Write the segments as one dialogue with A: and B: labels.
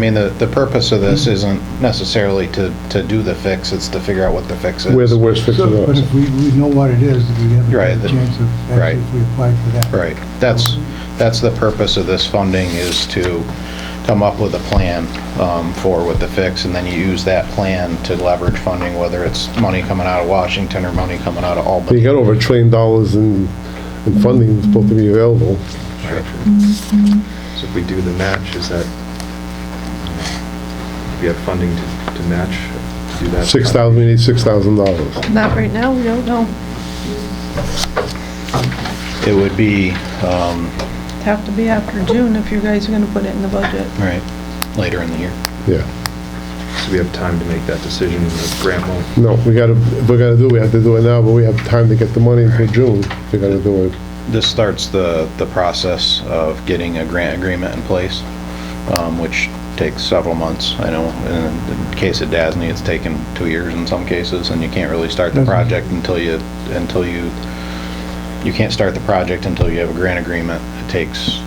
A: I mean, the, the purpose of this isn't necessarily to, to do the fix, it's to figure out what the fix is.
B: where the worst fix
C: So, but
B: is.
C: if we, we know what it is, we have
A: Right,
C: a
A: the-
C: chance of,
A: right.
C: actually, if we apply for that.
A: Right, that's, that's the purpose of this funding, is to come up with a plan um, for what the fix, and then you use that plan to leverage funding, whether it's money coming out of Washington or money coming out of
B: You
A: Albany.
B: got over a trillion dollars in, in funding that's supposed to be available.
D: So if we do the match, is that, we have funding to to match, to do that?
B: Six thousand, we need six thousand dollars.
E: Not right now, we don't know.
A: It would be, um,
E: It'd have to be after June if you guys are gonna put it in the budget.
A: right, later in the year.
B: Yeah.
D: So we have time to make that decision, the grant won't
B: No, we gotta, if we're gonna do, it, we have to do it now, but we have time to get the money for June. We gotta do it.
A: This starts the, the process of getting a grant agreement in place, um, which takes several months, I know. In the case of DASNY, it's taken two years in some cases, and you can't really start the
C: Mhm.
A: project until you, until you, you can't start the project until you have a grant agreement. It takes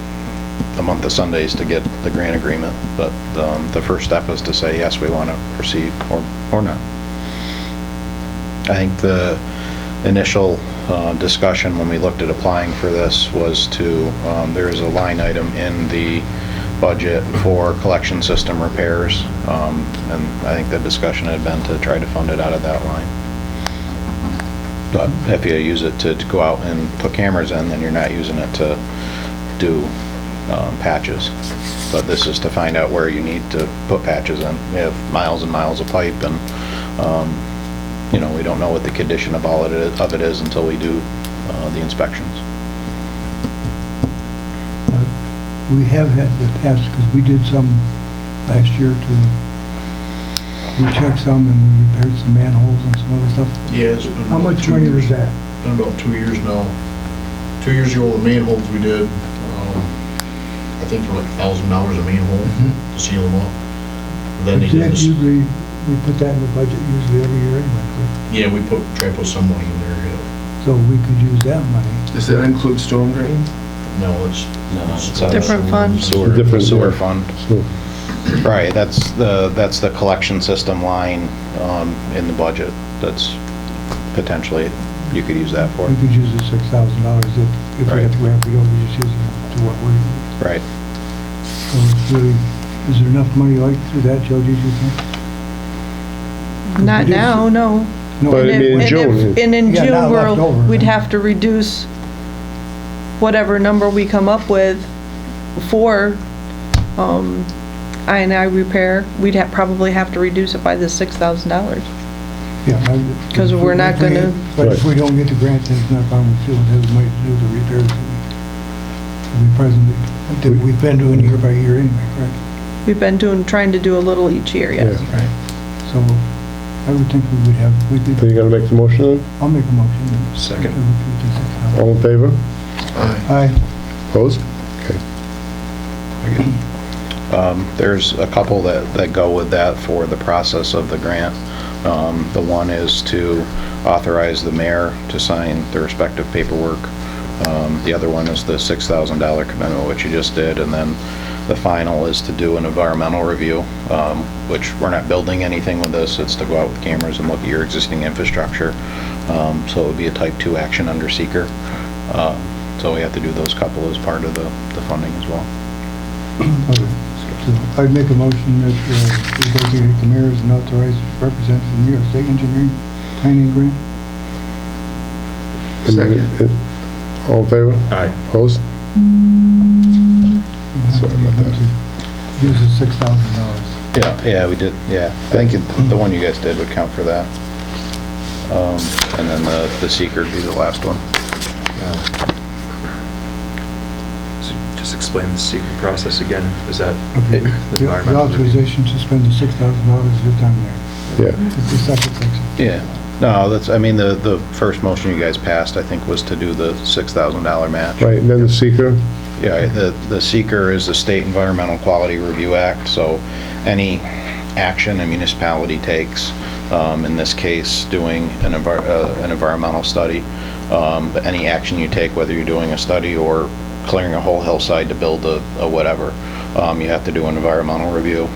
A: a month of Sundays to get the grant agreement, but, um, the first step is to say, yes, we want to proceed, or, or not. I think the initial uh, discussion when we looked at applying for this was to, um, there is a line item in the budget for collection system repairs, um, and I think the discussion had been to try to fund it out of that line. But if you use it to to go out and put cameras in, then you're not using it to do um, patches. But this is to find out where you need to put patches in. We have miles and miles of pipe and you know, we don't know what the condition of all it is, of it is until we do uh, the inspections.
C: We have had the past, because we did some last year to, we checked some and we repaired some manholes and some other stuff.
F: Yes. been
C: How
F: about
C: much
F: two
C: money
F: years-
C: was that?
F: Been about two years now. Two years ago, the manholes we did, um, I think for like a thousand dollars a manhole to seal them up. Then they did
C: But Mm-hmm. that
F: this,
C: usually, we put that in the budget usually every year anyway, correct?
F: yeah, we put, try to put some money in there, yeah.
C: so we could use that money.
G: Does that include storm drain?
F: No, it's.
A: it's a
E: Different fund.
A: Sewer,
B: Different,
A: sewer
B: yeah.
A: fund.
B: So,
A: Right, that's the, that's the collection system line um, in the budget. That's potentially, you could use that for,
C: We could use the six thousand dollars if, if we
A: Right.
C: have to go, if we don't, we just use it to what we,
A: right?
C: so it's really, is there enough money like through that, Joe, do you think?
E: Not now, no.
C: No,
B: But I
E: And
B: mean, in
E: if- and if-
B: June,
E: And in
C: Yeah,
E: June,
C: not left
E: we'll,
C: over,
E: we'd
C: huh?
E: have to reduce whatever number we come up with for, um, I and I repair. We'd have, probably have to reduce it by the six thousand dollars.
C: Yeah, I-
E: 'Cause
C: if
E: we're
C: we-
E: not
C: if we
E: gonna-
C: get- But if we don't get the grant, then it's not on the field, it might do the repairs. that We presently, that we've been doing year by year anyway, correct?
E: We've been doing, trying to do a little each year, yes.
B: yeah.
C: So I would think we would have, we
B: So
C: could,
B: you gonna make the motion
C: I'll make a motion.
D: Second.
B: then? All in favor?
C: Aye.
B: Opposed? Okay.
A: Um, There's a couple that, that go with that for the process of the grant. Um, The one is to authorize the mayor to sign the respective paperwork. Um, The other one is the $6,000 commitment, which you just did, and then the final is to do an environmental review, um, which we're not building anything with this, it's to go out with cameras and look at your existing infrastructure. Um, So it would be a type 2 action under seeker. Uh, So we have to do those couple as part of the, the funding as well.
C: Okay. So I'd make a motion that uh, we designate the mayor as an authorized representative of the New York State Engineering Planning Grant.
B: And then- All in favor?
D: Aye.
B: Opposed? Sorry about that.
C: Use the six thousand dollars.
A: Yeah, yeah, we did, yeah. I think it- the one you guys did would count for that. Um, And then the the seeker would be the last one.
D: So Just explain the secret process again. Is that
C: Okay. The
D: the
C: the
D: environmental review?
C: authorization to spend the six thousand dollars is down there.
B: Yeah.
C: It's the second section.
A: Yeah. No, that's, I mean, the, the first motion you guys passed, I think, was to do the $6,000 match.
B: Right, and then the seeker?
A: Yeah, the, the seeker is the State Environmental Quality Review Act, so any action a municipality takes, um, in this case, doing an envir, uh, an environmental study, um, but any action you take, whether you're doing a study or clearing a whole hillside to build a, a whatever, um, you have to do an environmental review,